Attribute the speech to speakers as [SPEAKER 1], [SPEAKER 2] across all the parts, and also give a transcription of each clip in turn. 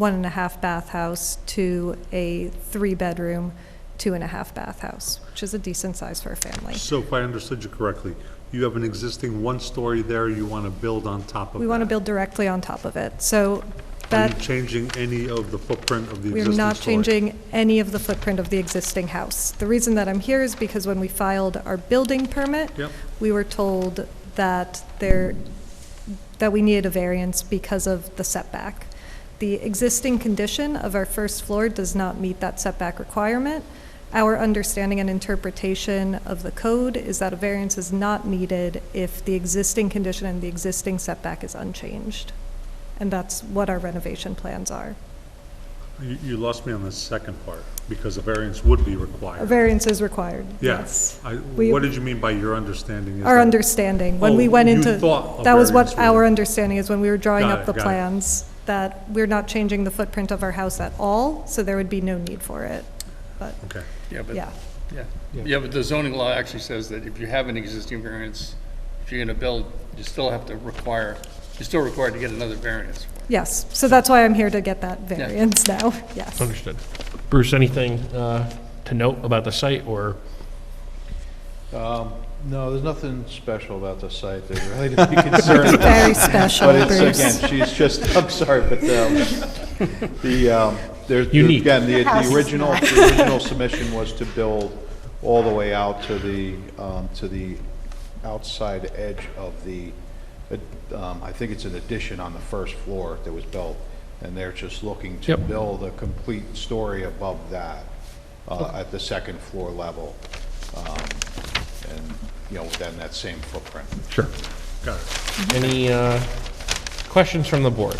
[SPEAKER 1] one and a half bathhouse to a three-bedroom, two and a half bathhouse, which is a decent size for a family.
[SPEAKER 2] So if I understood you correctly, you have an existing one-story there, you want to build on top of that?
[SPEAKER 1] We want to build directly on top of it, so
[SPEAKER 2] Are you
[SPEAKER 1] that,
[SPEAKER 2] changing any of the footprint of the existing
[SPEAKER 1] we're
[SPEAKER 2] story?
[SPEAKER 1] not changing any of the footprint of the existing house. The reason that I'm here is because when we filed our building permit,
[SPEAKER 2] Yep.
[SPEAKER 1] we were told that there, that we needed a variance because of the setback. The existing condition of our first floor does not meet that setback requirement. Our understanding and interpretation of the code is that a variance is not needed if the existing condition and the existing setback is unchanged. And that's what our renovation plans are.
[SPEAKER 2] You, you lost me on the second part, because a variance would be required.
[SPEAKER 1] A variance is required,
[SPEAKER 2] Yeah.
[SPEAKER 1] yes.
[SPEAKER 2] I-
[SPEAKER 1] We-
[SPEAKER 2] What did you mean by your understanding? is
[SPEAKER 1] Our
[SPEAKER 2] that-
[SPEAKER 1] understanding, when we
[SPEAKER 2] Oh,
[SPEAKER 1] went
[SPEAKER 2] you
[SPEAKER 1] into,
[SPEAKER 2] thought a
[SPEAKER 1] that was what
[SPEAKER 2] variance was-
[SPEAKER 1] our understanding is when we were drawing
[SPEAKER 2] Got
[SPEAKER 1] up
[SPEAKER 2] it,
[SPEAKER 1] the
[SPEAKER 2] got it.
[SPEAKER 1] plans, that we're not changing the footprint of our house at all, so there would be no need for it. But,
[SPEAKER 2] Okay.
[SPEAKER 3] Yeah, but,
[SPEAKER 1] yeah,
[SPEAKER 3] yeah, yeah, but the zoning law actually says that if you have an existing variance, if you're gonna build, you still have to require, you're still required to get another variance.
[SPEAKER 1] yes, so that's why I'm here to get that variance now, yes.
[SPEAKER 4] Understood. Bruce, anything uh, to note about the site or?
[SPEAKER 5] Um, No, there's nothing special about the site that really to be concerned about.
[SPEAKER 1] Very special,
[SPEAKER 5] But it's,
[SPEAKER 1] Bruce.
[SPEAKER 5] again, she's just, I'm sorry, but um, the, um, there's,
[SPEAKER 4] Unique.
[SPEAKER 5] again, the, the original, the original submission was to build all the way out to the, um, to the outside edge of the, uh, um, I think it's an addition on the first floor that was built, and they're just looking to
[SPEAKER 4] Yep.
[SPEAKER 5] build a complete story above that, uh, at the second floor level. um, And, you know, within that same footprint.
[SPEAKER 4] Sure.
[SPEAKER 2] Got it.
[SPEAKER 4] Any uh, questions from the board?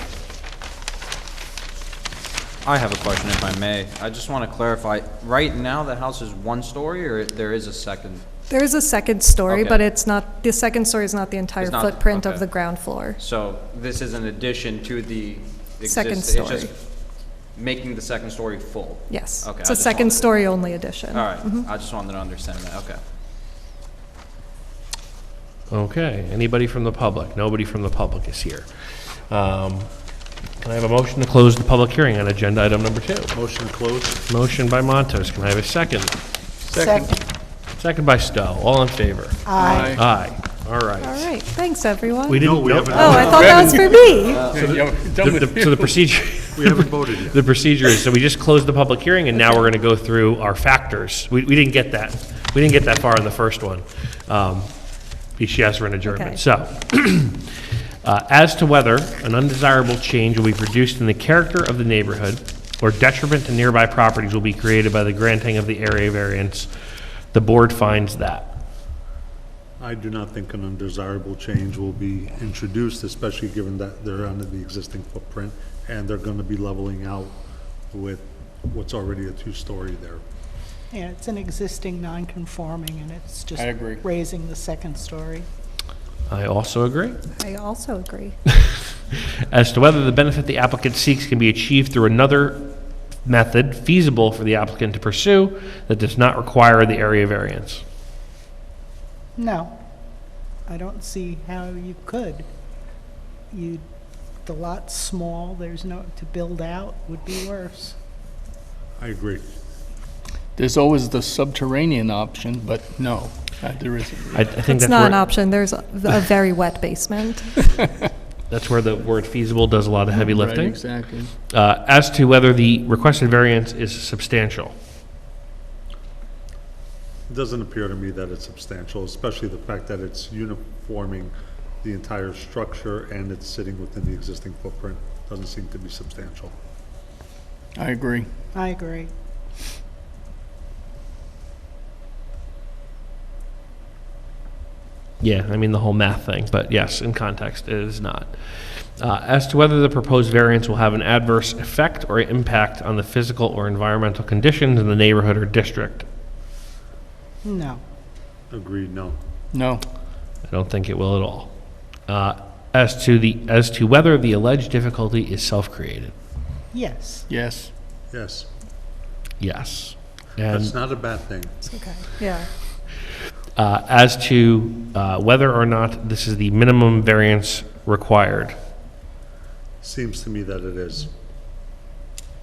[SPEAKER 6] I have a question if I may. I just want to clarify, right now the house is one story or there is a second?
[SPEAKER 1] There is a second story,
[SPEAKER 6] Okay.
[SPEAKER 1] but it's not, the second story is not the entire
[SPEAKER 6] It's not-
[SPEAKER 1] footprint of
[SPEAKER 6] okay.
[SPEAKER 1] the ground floor.
[SPEAKER 6] So this is an addition to the
[SPEAKER 1] Second
[SPEAKER 6] existing? it's just
[SPEAKER 1] story.
[SPEAKER 6] Making the second story full?
[SPEAKER 1] Yes,
[SPEAKER 6] Okay,
[SPEAKER 1] it's
[SPEAKER 6] I
[SPEAKER 1] a
[SPEAKER 6] just
[SPEAKER 1] second mm-hmm.
[SPEAKER 6] wanted to-
[SPEAKER 1] story only addition.
[SPEAKER 6] All right, I just wanted to understand that, okay.
[SPEAKER 4] Okay, anybody from the public? Nobody from the public is here. Um, Can I have a motion to close the public hearing on agenda item number two?
[SPEAKER 2] Motion to close?
[SPEAKER 4] Motion by Montos, can I have a second?
[SPEAKER 7] Second.
[SPEAKER 4] Second by Stowe, all in favor?
[SPEAKER 7] Aye.
[SPEAKER 4] Aye, all
[SPEAKER 1] All
[SPEAKER 4] right.
[SPEAKER 1] right, thanks, everyone.
[SPEAKER 4] We
[SPEAKER 1] Oh,
[SPEAKER 4] didn't,
[SPEAKER 2] No, we
[SPEAKER 4] nope.
[SPEAKER 2] haven't.
[SPEAKER 1] I thought that was for me.
[SPEAKER 3] Yeah, we're done
[SPEAKER 4] The-
[SPEAKER 3] with
[SPEAKER 4] the- So the procedure,
[SPEAKER 2] We haven't voted yet.
[SPEAKER 4] the procedure is, so we just closed the public hearing, and now we're going to go through our factors. We, we didn't get that, we didn't get that far in the first one. Um, She asked for an
[SPEAKER 1] Okay.
[SPEAKER 4] adjournment. So, uh, as to whether an undesirable change will be produced in the character of the neighborhood or detriment to nearby properties will be created by the granting of the area variance, the board finds that.
[SPEAKER 2] I do not think an undesirable change will be introduced, especially given that they're under the existing footprint, and they're going to be leveling out with what's already a two-story there.
[SPEAKER 7] Yeah, it's an existing non-conforming, and it's just
[SPEAKER 3] I agree.
[SPEAKER 7] raising the second story.
[SPEAKER 4] I also agree.
[SPEAKER 1] I also agree.
[SPEAKER 4] as to whether the benefit the applicant seeks can be achieved through another method feasible for the applicant to pursue that does not require the area variance.
[SPEAKER 7] No, I don't see how you could. You, the lot's small, there's no, to build out would be worse.
[SPEAKER 2] I agree.
[SPEAKER 3] There's always the subterranean option, but no, uh, there isn't.
[SPEAKER 4] I, I think
[SPEAKER 1] It's
[SPEAKER 4] that's
[SPEAKER 1] not an
[SPEAKER 4] where,
[SPEAKER 1] option, there's a a very wet basement.
[SPEAKER 4] that's where the word feasible does a lot of heavy
[SPEAKER 3] Right,
[SPEAKER 4] lifting.
[SPEAKER 3] exactly.
[SPEAKER 4] Uh, as to whether the requested variance is substantial.
[SPEAKER 2] It Doesn't appear to me that it's substantial, especially the fact that it's uniforming the entire structure and it's sitting within the existing footprint. Doesn't seem to be substantial.
[SPEAKER 3] I agree.
[SPEAKER 7] I agree.
[SPEAKER 4] Yeah, I mean the whole math thing, but yes, in context, it is not. Uh, as to whether the proposed variance will have an adverse effect or impact on the physical or environmental conditions in the neighborhood or district,
[SPEAKER 7] No,
[SPEAKER 2] Agreed, no.
[SPEAKER 3] No,
[SPEAKER 4] I don't think it will at all. Uh, As to the, as to whether the alleged difficulty is self-created,
[SPEAKER 7] yes,
[SPEAKER 3] yes.
[SPEAKER 2] Yes,
[SPEAKER 4] yes.
[SPEAKER 2] that's
[SPEAKER 4] And
[SPEAKER 2] not a bad thing.
[SPEAKER 1] It's okay. Yeah.
[SPEAKER 4] uh, as to uh, whether or not this is the minimum variance required,
[SPEAKER 2] Seems to me that it is.